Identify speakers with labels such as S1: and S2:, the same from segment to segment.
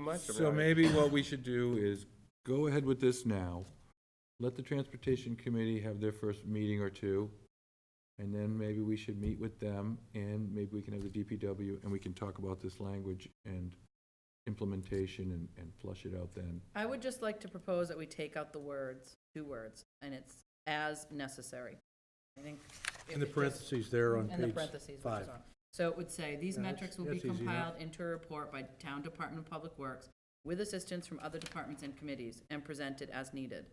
S1: much. I mean,
S2: So
S1: I-
S2: maybe what we should do is go ahead with this now. Let the Transportation Committee have their first meeting or two. And then maybe we should meet with them and maybe we can have the DPW and we can talk about this language and implementation and, and flush it out then.
S3: I would just like to propose that we take out the words, two words, and it's as necessary. I think. if
S4: In the
S3: it just-
S4: parentheses there on
S3: And the
S4: page
S3: parentheses, which
S4: five.
S3: is on. So it would say, these
S4: Yeah,
S3: metrics
S4: that's-
S3: will be
S4: that's easy enough.
S3: compiled into a report by Town Department of Public Works with assistance from other departments and committees and presented as needed.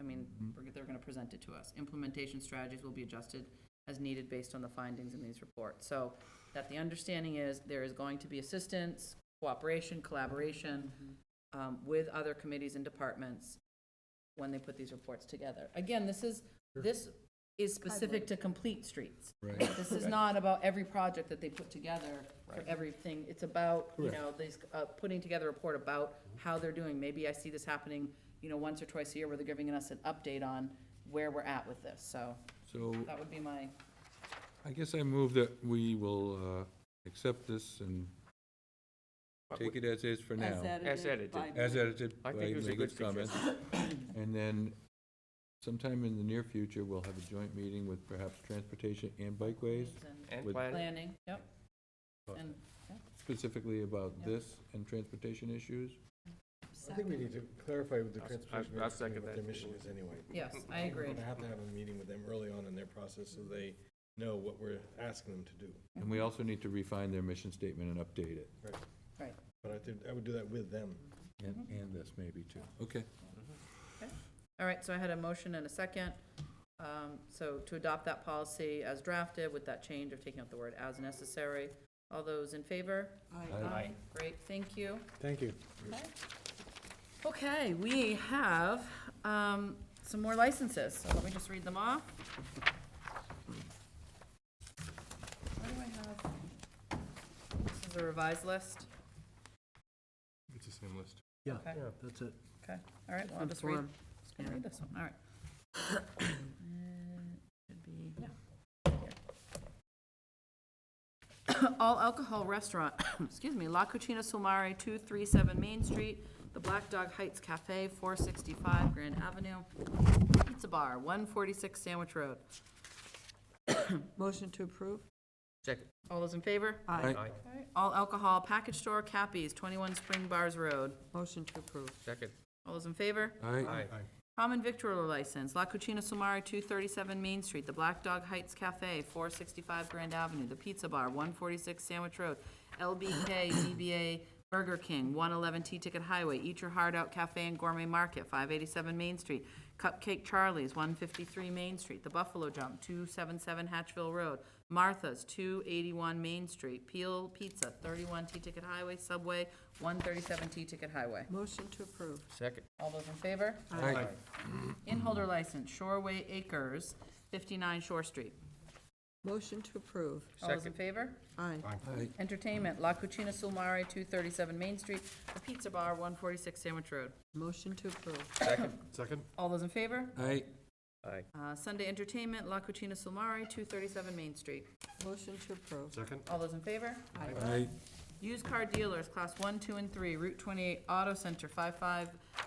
S3: I mean,
S4: Mm-hmm.
S3: we're- they're gonna present it to us. Implementation strategies will be adjusted as needed based on the findings in these reports. So that the understanding is there is going to be assistance, cooperation, collaboration
S4: Mm-hmm.
S3: um, with other committees and departments when they put these reports together. Again, this is, this is specific to complete streets.
S2: Right.
S3: This is not about every project that they put together for everything. It's about, you know, these, uh, putting together a report about how they're doing. Maybe I see this happening, you know, once or twice a year where they're giving us an update on where we're at with this. So
S2: So
S3: that would be my,
S2: I guess I move that we will, uh, accept this and
S1: but we-
S2: take it as is for now.
S1: As edited.
S5: by-
S2: As edited by
S1: I think it was a good
S2: Megan's comments. And then sometime in the near future, we'll have a joint meeting with perhaps transportation and bikeways,
S1: And
S2: With-
S1: plan,
S3: planning, yep. And
S2: specifically about this and transportation issues.
S6: I think we need to clarify with the
S1: I'll-
S6: transportation
S1: I'll
S6: ministry
S1: second
S6: what
S1: that.
S6: their mission is anyway.
S3: yes, I agree.
S6: We're gonna have to have a meeting with them early on in their process so they know what we're asking them to do.
S2: And we also need to refine their mission statement and update it.
S3: Right.
S6: But I think, I would do that with them.
S2: And, and this maybe too. Okay.
S3: All right, so I had a motion and a second. Um, So to adopt that policy as drafted with that change of taking out the word as necessary. All those in favor?
S2: Aye.
S3: Great, thank you.
S4: Thank you.
S3: Okay, we have um, some more licenses, so let me just read them off. Where do I have? This is a revised list.
S6: It's the same list.
S4: Yeah,
S3: Okay.
S4: yeah, that's it.
S3: Okay, all right, well, I'll just read, just gonna read this one, all right. Uh, Should be, yeah. All alcohol restaurant, excuse me, La Cucina Solmare, two three seven Main Street, The Black Dog Heights Cafe, four sixty-five Grand Avenue, Pizza Bar, one forty-six Sandwich Road.
S5: Motion to approve?
S1: second,
S3: All those in favor?
S2: Aye.
S1: aye,
S3: All alcohol package store, Cappies, twenty-one Spring Bars Road.
S5: Motion to approve.
S1: second,
S3: All those in favor?
S2: Aye.
S1: aye,
S3: Common victualler license, La Cucina Sumari, 237 Main Street, The Black Dog Heights Cafe, 465 Grand Avenue, The Pizza Bar, 146 Sandwich Road, LBK DBA Burger King, 111 T-Ticket Highway, Eat Your Heart Out Cafe and Gourmet Market, 587 Main Street, Cupcake Charlie's, 153 Main Street, The Buffalo Jump, 277 Hatchville Road, Martha's, 281 Main Street, Peel Pizza, 31 T-Ticket Highway, Subway, 137 T-Ticket Highway.
S5: Motion to approve.
S1: second,
S3: All those in favor?
S2: Aye.
S3: Inholder license, Shoreway Acres, 59 Shore Street.
S5: Motion to approve.
S3: All those in
S1: Second.
S3: favor?
S5: Aye.
S2: Aye.
S3: Entertainment, La Cucina Sulmare, 237 Main Street, The Pizza Bar, 146 Sandwich Road.
S5: Motion to approve.
S1: second,
S3: All those in favor?
S2: Aye.
S1: aye,
S3: Uh, Sunday Entertainment, La Cucina Sulmare, 237 Main Street.
S5: Motion to approve.
S3: All those in favor?
S2: Aye.
S3: Used car dealers, Class 1, 2, and 3, Route 28 Auto Center,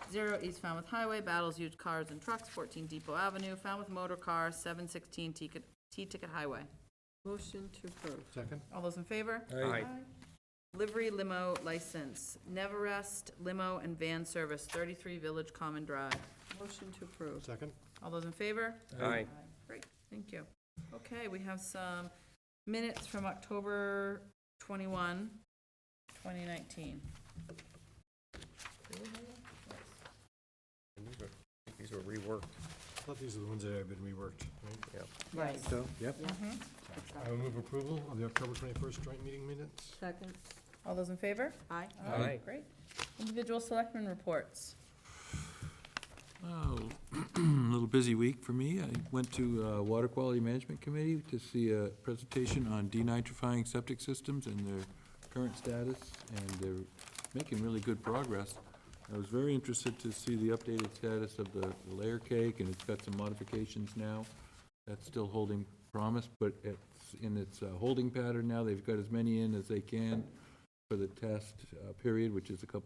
S3: 550 East Falmouth Highway, Battles Used Cars and Trucks, 14 Depot Avenue, Falmouth Motor Car, 716 T-Ticket- T-Ticket Highway.
S5: Motion to approve.
S3: All those in favor?
S1: aye,
S3: Livery limo license, Neverest Limo and Van Service, 33 Village Common Drive.
S5: Motion to approve.
S4: Second?
S3: All those in favor?
S1: aye,
S3: Great, thank you. Okay, we have some minutes from October 21, 2019.
S1: And these were- I think these were reworked,
S4: I thought these are the ones that have been reworked.
S1: yeah,
S3: Right.
S4: So, yep. I will move approval of the October 21st joint meeting minutes.
S5: Second.
S3: All those in favor?
S5: Aye.
S3: All
S1: Aye.
S3: right, Great. Individual selectmen reports.
S2: Oh, a little busy week for me. I went to uh, Water Quality Management Committee to see a presentation on denitrifying septic systems and their current status, and they're making really good progress. I was very interested to see the updated status of the the layer cake, and it's got some modifications now. That's still holding promise, but it's in its uh, holding pattern now. They've got as many in as they can. for the test uh, period, which is a couple